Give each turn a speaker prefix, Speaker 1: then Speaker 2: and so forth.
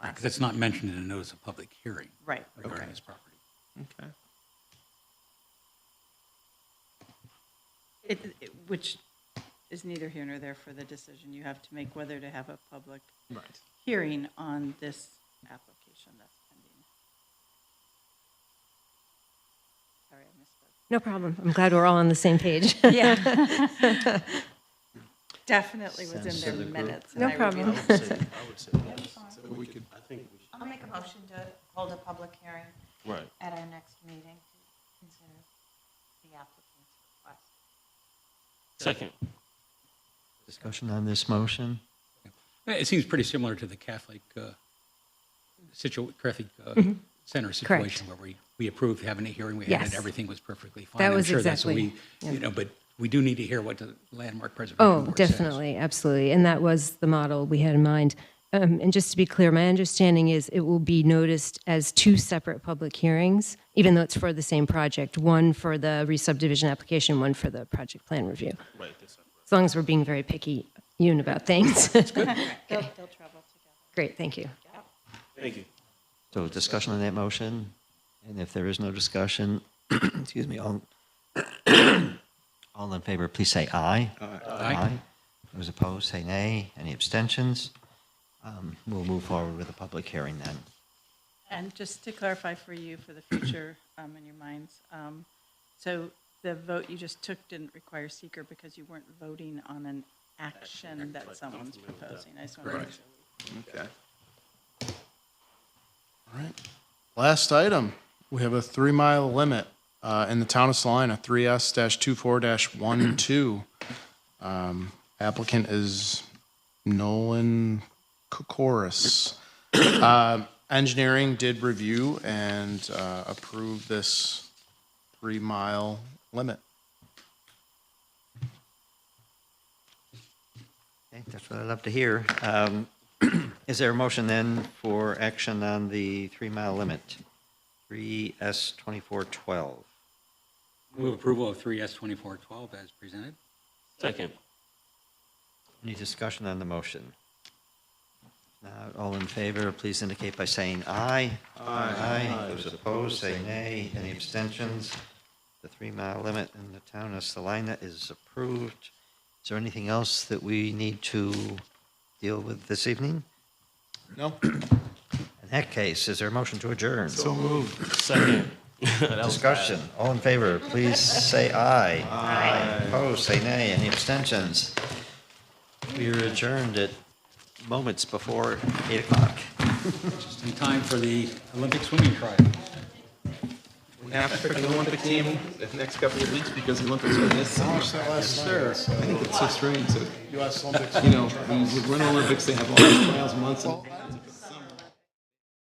Speaker 1: Because it's not mentioned in a notice of public hearing
Speaker 2: Right,
Speaker 1: regarding
Speaker 2: okay.
Speaker 1: this property.
Speaker 3: Okay.
Speaker 2: It- it- Which is neither here nor there for the decision you have to make whether to have a public
Speaker 3: Right.
Speaker 2: hearing on this application that's pending. Sorry, I misspoke.
Speaker 4: No problem. I'm glad we're all on the same page.
Speaker 2: Yeah. Definitely was in their minutes. and
Speaker 4: No
Speaker 2: I reviewed
Speaker 4: problem.
Speaker 2: it.
Speaker 5: I'll make a motion to hold a public hearing
Speaker 3: Right.
Speaker 5: at our next meeting to consider the applicant's request.
Speaker 3: Second.
Speaker 6: Discussion on this motion?
Speaker 1: Uh, It seems pretty similar to the Catholic, uh, situ, Catholic uh,
Speaker 4: Mm-hmm.
Speaker 1: Center situation where we, we approved having a hearing, we had it,
Speaker 4: Yes.
Speaker 1: everything was perfectly fine.
Speaker 4: That
Speaker 1: I'm
Speaker 4: was
Speaker 1: sure that's what
Speaker 4: exactly-
Speaker 1: we-
Speaker 4: yeah.
Speaker 1: You know, but we do need to hear what the Landmark Preservation
Speaker 4: Oh,
Speaker 1: Board says.
Speaker 4: definitely, absolutely. And that was the model we had in mind. Um, and just to be clear, my understanding is it will be noticed as two separate public hearings, even though it's for the same project, one for the re-subdivision application, one for the project plan review.
Speaker 3: Right. This one.
Speaker 4: As long as we're being very picky, you about things.
Speaker 2: They'll, they'll travel together.
Speaker 4: Great, thank you.
Speaker 3: Thank you.
Speaker 6: So discussion on that motion, and if there is no discussion, excuse me, all, all in favor, please say aye. Those opposed, say nay. Any abstentions? Um, We'll move forward with a public hearing then.
Speaker 2: And just to clarify for you, for the future um, in your minds, um, so the vote you just took didn't require seeker because you weren't voting on an action that someone's proposing. I just want to make sure.
Speaker 7: Okay. All right. Last item, we have a three mile limit uh, in the town of Salina, 3S 24 12. Um, Applicant is Nolan Kokoris. Um, Engineering did review and uh, approve this three mile limit.
Speaker 6: Okay, That's what I'd love to hear. Um, Is there a motion then for action on the three-mile limit? 3S 2412.
Speaker 1: Move approval of 3S 2412 as presented.
Speaker 3: Second.
Speaker 6: Any discussion on the motion? Now, all in favor, please indicate by saying aye. Aye. Those opposed, say nay. Any abstentions? The three-mile limit in the town of Salina is approved. Is there anything else that we need to deal with this evening?
Speaker 7: No?
Speaker 6: In that case, is there a motion to adjourn?
Speaker 3: Second.
Speaker 6: Discussion, all in favor, please say aye. Aye. Opposed, say nay. Any abstentions? We are adjourned at moments before 8 o'clock.
Speaker 1: Just in time for the Olympic swimming trial.
Speaker 8: We have to pick an Olympic team in the next couple of weeks because the Olympics are this summer. Yes, sir. I think it's so strange that,
Speaker 7: US Olympics.
Speaker 8: you know, when you run Olympics, they have all these trials months and